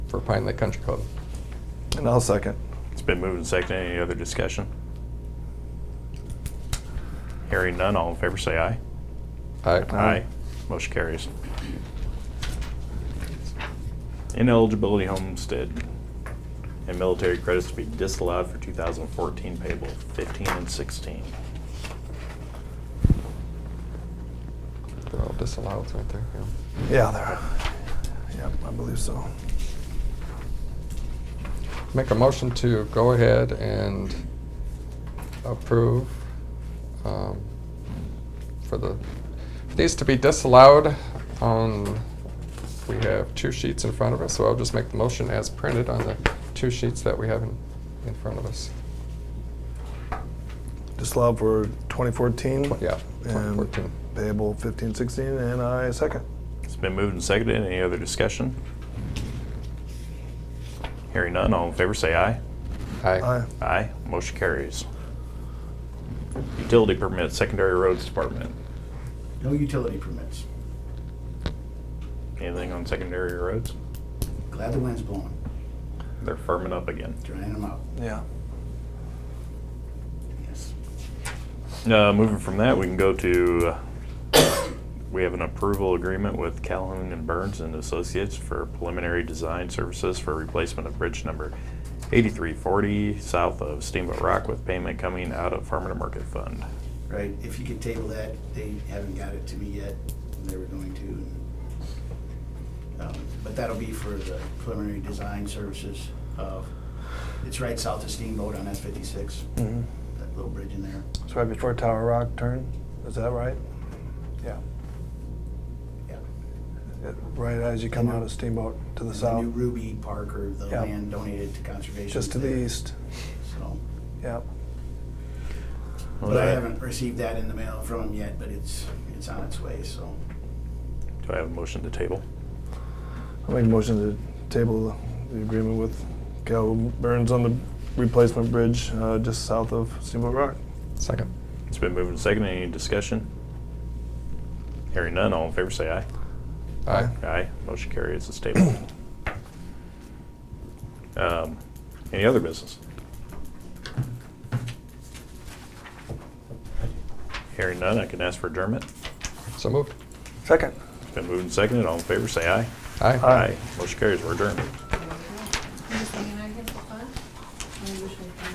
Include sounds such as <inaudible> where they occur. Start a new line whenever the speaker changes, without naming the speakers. for Pine Lake Country Club.
And I'll second.
It's been moved and seconded. Any other discussion? Hearing none, all in favor say aye.
Aye.
Motion carries. Ineligibility homestead and military credits to be disallowed for 2014 payable 15 and 16.
They're all disallowed right there. yeah.
Yeah, there. Yep, I believe so.
Make a motion to go ahead and approve um, for the, these to be disallowed on, we have two sheets in front of us, so I'll just make the motion as printed on the two sheets that we have in, in front of us.
Disallowed for 2014.
Tw- Yeah,
And
2014.
Payable 15, 16, and I second.
It's been moved and seconded. Any other discussion? Hearing none, all in favor say aye.
Aye.
Aye. Motion carries. Utility permit, secondary roads department.
No utility permits.
Anything on secondary roads?
Glad the wind's blowing,
They're firming up again.
drying them out,
Yeah.
yes.
Uh, moving from that, we can go to, <coughs> uh, we have an approval agreement with Calhoun and Burns and Associates for preliminary design services for replacement of bridge number 8340 south of Steamboat Rock with payment coming out of Farm to Market Fund.
Right, if you could table that, they haven't got it to me yet, and they were going to. and, um, But that'll be for the preliminary design services of, it's right south of Steamboat on S fifty-six,
Mhm.
that little bridge in there,
It's right before Tower Rock turn. Is that right? Yeah.
yeah.
It- Right as you come out of Steamboat to the
And New
south,
Ruby Parker, the
Yeah.
land donated to conservation.
just to the
there,
east.
So,
Yeah.
but I haven't received that in the mail from them yet, but it's, it's on its way, so.
Do I have a motion to table?
I make a motion to table the agreement with Cal Burns on the replacement bridge uh, just south of Steamboat Rock.
Second.
It's been moved and seconded. Any discussion? Hearing none, all in favor say aye.
Aye.
Aye, motion carries, it's tabled. Um, Any other business? Hearing none, I can ask for adjournment.
So moved.
Second.
It's been moved and seconded, all in favor, say aye.
Aye.
Aye.
Motion carries, we're adjourned.